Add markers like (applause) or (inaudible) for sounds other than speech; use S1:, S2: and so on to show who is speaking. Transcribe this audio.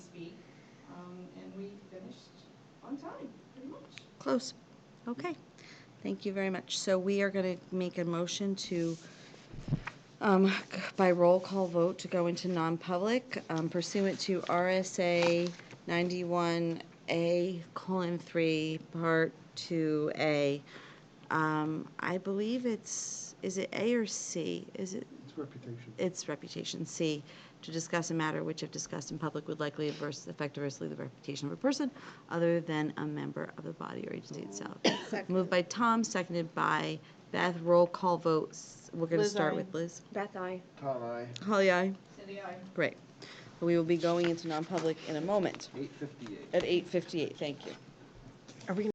S1: um, on time, pretty much.
S2: Close. Okay. Thank you very much. So we are going to make a motion to, um, by roll call vote, to go into non-public um, pursuant to RSA 91A colon 3, Part 2A. Um, I believe it's, is it A or C? Is it?
S3: It's reputation.
S2: its reputation. C, to discuss a matter which if discussed in public would likely adverse, affect adversely the reputation of a person other than a member of the body or
S4: (coughs)
S2: agency itself. Moved by Tom, seconded by Beth. Roll call votes. We're going to
S4: Liz,
S2: start
S4: aye.
S2: with Liz.
S4: Beth, I.
S3: Tom, I,
S2: Holly, aye.
S1: City, I.
S2: Great. We will be going into non-public in a moment
S3: eight fifty-eight.
S2: at 8:58. Thank you.